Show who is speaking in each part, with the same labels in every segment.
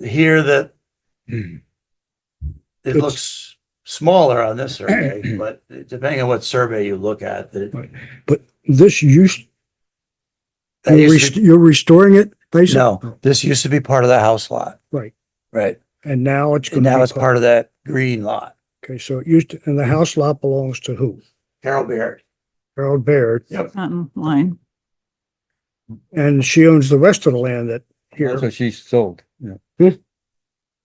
Speaker 1: here that
Speaker 2: Hmm.
Speaker 1: it
Speaker 2: It's-
Speaker 1: looks smaller on this survey, but depending on what survey you look at, that
Speaker 2: Right. This used,
Speaker 1: that
Speaker 2: you're
Speaker 1: used
Speaker 2: rest-
Speaker 1: to-
Speaker 2: you're restoring it, basically?
Speaker 1: no, this used to be part of the house lot.
Speaker 2: Right.
Speaker 1: Right.
Speaker 2: And now it's.
Speaker 1: And
Speaker 2: gonna
Speaker 1: now
Speaker 2: be
Speaker 1: it's part of that green lot.
Speaker 2: Okay, so it used, to- and the house lot belongs to who?
Speaker 1: Carol Baird.
Speaker 2: Harold Baird,
Speaker 3: Mountain line.
Speaker 2: and she owns the rest of the land that
Speaker 4: That's
Speaker 2: here.
Speaker 4: what she's sold, yeah.
Speaker 2: Hmm.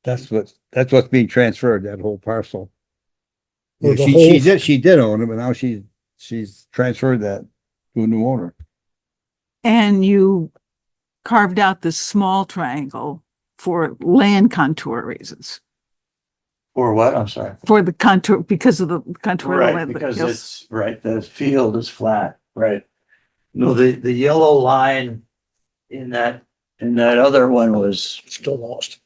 Speaker 4: That's what, that's what's being transferred, that whole parcel.
Speaker 2: Or the
Speaker 4: She,
Speaker 2: whole-
Speaker 4: she did, she did own it, but now she's, she's transferred that to a new owner.
Speaker 3: And you carved out this small triangle for land contour reasons,
Speaker 1: Or what? I'm sorry.
Speaker 3: for the contour, because of the contour. of the
Speaker 1: Right,
Speaker 3: land, but
Speaker 1: because
Speaker 3: yes.
Speaker 1: it's, right, the field is flat, right? No, the, the yellow line in that, in that other one was,
Speaker 2: Still lost.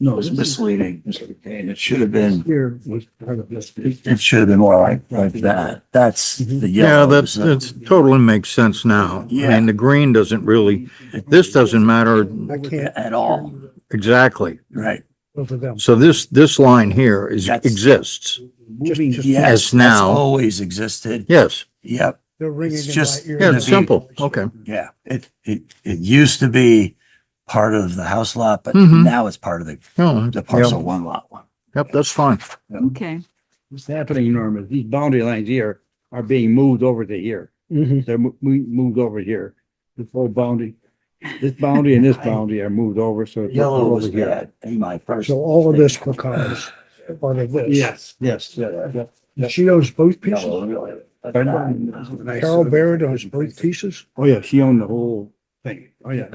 Speaker 1: no, was misleading, Mr. Kane. It should have been,
Speaker 2: Here.
Speaker 1: it should have been more like, like that. That's the
Speaker 5: Yeah,
Speaker 1: yellow.
Speaker 5: that's, that's totally makes sense now. I
Speaker 1: Yeah.
Speaker 5: mean, the green doesn't really, this doesn't matter
Speaker 2: I can't.
Speaker 1: At all,
Speaker 5: exactly.
Speaker 1: right?
Speaker 2: Both of them.
Speaker 5: So this, this line here is,
Speaker 1: That's-
Speaker 5: exists.
Speaker 2: Just- just-
Speaker 1: Yes,
Speaker 5: As
Speaker 1: that's
Speaker 5: now.
Speaker 1: Always existed.
Speaker 5: Yes,
Speaker 1: Yep,
Speaker 2: They're ringing
Speaker 1: It's
Speaker 2: in my
Speaker 1: just-
Speaker 2: ears.
Speaker 5: yeah, it's simple. Okay.
Speaker 1: yeah. It, it, it used to be part of the house lot, but
Speaker 5: Mhm.
Speaker 1: now it's part of the,
Speaker 5: No,
Speaker 1: the
Speaker 5: yeah,
Speaker 1: parcel one lot one.
Speaker 5: Yep, that's fine.
Speaker 3: Okay,
Speaker 4: What's happening, Norm, is these boundary lines here are being moved over to here.
Speaker 2: Mhm.
Speaker 4: They're mo- mo- moved over here. This whole boundary, this boundary and this boundary are moved over, so. it's
Speaker 1: Yellow
Speaker 4: over
Speaker 1: was
Speaker 4: here.
Speaker 1: bad in my first.
Speaker 2: So all of this becomes part of this.
Speaker 4: Yes, yes, yeah, yeah.
Speaker 2: And She owns both pieces.
Speaker 1: Yellow, really.
Speaker 2: Carol Baird owns both pieces.
Speaker 4: Oh, yeah, she owned the whole thing. Oh, yeah.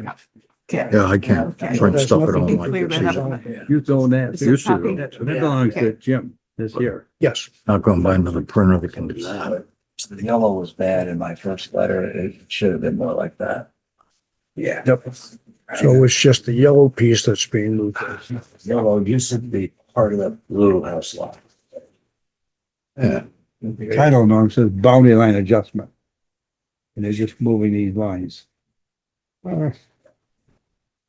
Speaker 5: Yeah, I can't try and
Speaker 2: There's
Speaker 5: stuff it
Speaker 2: nothing
Speaker 5: online.
Speaker 3: Clear that up.
Speaker 4: You own that.
Speaker 3: It's
Speaker 4: You
Speaker 3: a
Speaker 5: Used to,
Speaker 3: copy.
Speaker 4: That belongs to Jim this year.
Speaker 2: Yes,
Speaker 5: Not going to buy another printer that can do that.
Speaker 1: The yellow was bad in my first letter. It should have been more like that. Yeah.
Speaker 2: so it's just the yellow piece that's being moved.
Speaker 1: Yellow used to be part of the blue house lot.
Speaker 4: Yeah. Title norm says boundary line adjustment. And they're just moving these lines.
Speaker 2: Uh,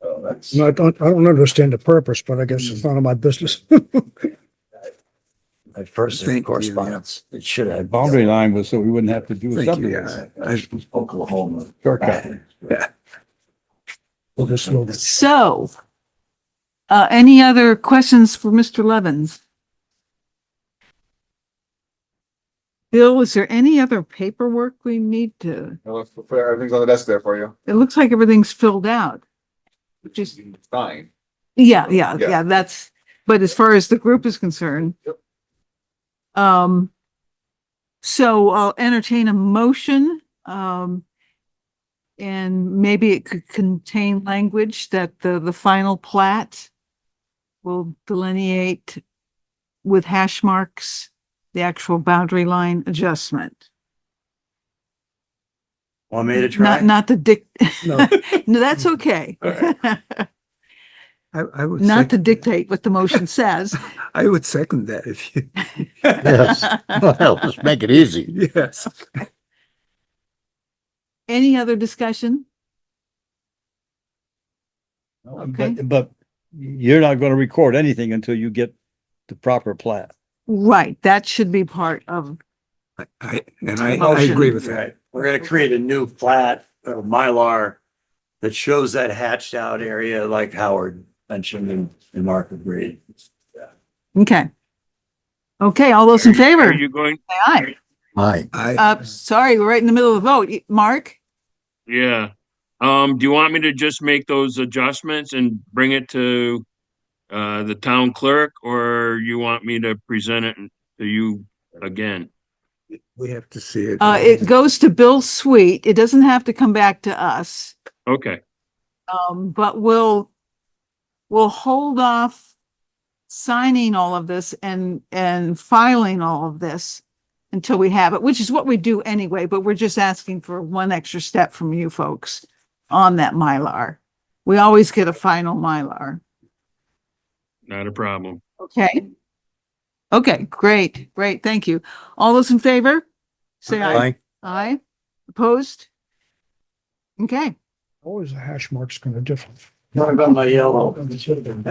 Speaker 1: So that's,
Speaker 2: No, I don't, I don't understand the purpose, but I guess it's none of my business.
Speaker 1: my first
Speaker 6: Thank you,
Speaker 1: correspondence, it should
Speaker 4: The
Speaker 1: have.
Speaker 4: boundary line was so we wouldn't have to do a
Speaker 6: Thank you.
Speaker 4: subdivision.
Speaker 6: I- I-
Speaker 1: Oklahoma.
Speaker 4: Shortcut.
Speaker 2: Well, this little-
Speaker 3: so, uh, any other questions for Mr. Levens? Bill, is there any other paperwork we need to,
Speaker 7: Well, let's prepare, everything's on the desk there for you.
Speaker 3: it looks like everything's filled out. Just,
Speaker 7: Fine.
Speaker 3: Yeah, yeah,
Speaker 7: Yeah.
Speaker 3: yeah, that's, but as far as the group is concerned.
Speaker 7: Yep.
Speaker 3: Um, so I'll entertain a motion, um, and maybe it could contain language that the, the final plat will delineate with hash marks, the actual boundary line adjustment.
Speaker 1: Want me to
Speaker 3: Not, not the dic,
Speaker 2: No.
Speaker 3: no, that's okay.
Speaker 6: I, I would.
Speaker 3: Not to
Speaker 6: second-
Speaker 3: dictate what the motion says.
Speaker 6: I would second that if you,
Speaker 5: Yes. Well, just make it easy.
Speaker 6: yes.
Speaker 3: Any other discussion? Okay.
Speaker 4: But, but you're not gonna record anything until you get the proper plat.
Speaker 3: Right, that should be part of,
Speaker 6: I- I, and I, I
Speaker 3: Motion.
Speaker 6: agree with that.
Speaker 1: Right. We're gonna create a new plat of Mylar that shows that hatched out area like Howard mentioned in, in Market Reed.
Speaker 3: okay. Okay, all those in favor?
Speaker 8: Are
Speaker 3: Say
Speaker 8: you going?
Speaker 3: aye.
Speaker 5: Aye.
Speaker 6: I,
Speaker 3: Uh, sorry, we're right in the middle of the vote. Y- Mark?
Speaker 8: Yeah. Um, do you want me to just make those adjustments and bring it to uh, the town clerk or you want me to present it to you again?
Speaker 6: we have to see it.
Speaker 3: Uh, it goes to Bill Sweet. It doesn't have to come back to us.
Speaker 8: Okay,
Speaker 3: Um, but we'll, we'll hold off signing all of this and, and filing all of this until we have it, which is what we do anyway, but we're just asking for one extra step from you folks on that Mylar. We always get a final Mylar.
Speaker 8: not a problem.
Speaker 3: Okay. Okay, great, great. Thank you. All those in favor? Say aye. Aye. Opposed? Okay.
Speaker 2: Always the hash mark's gonna differ.
Speaker 1: Uh,
Speaker 2: Talking about my yellow.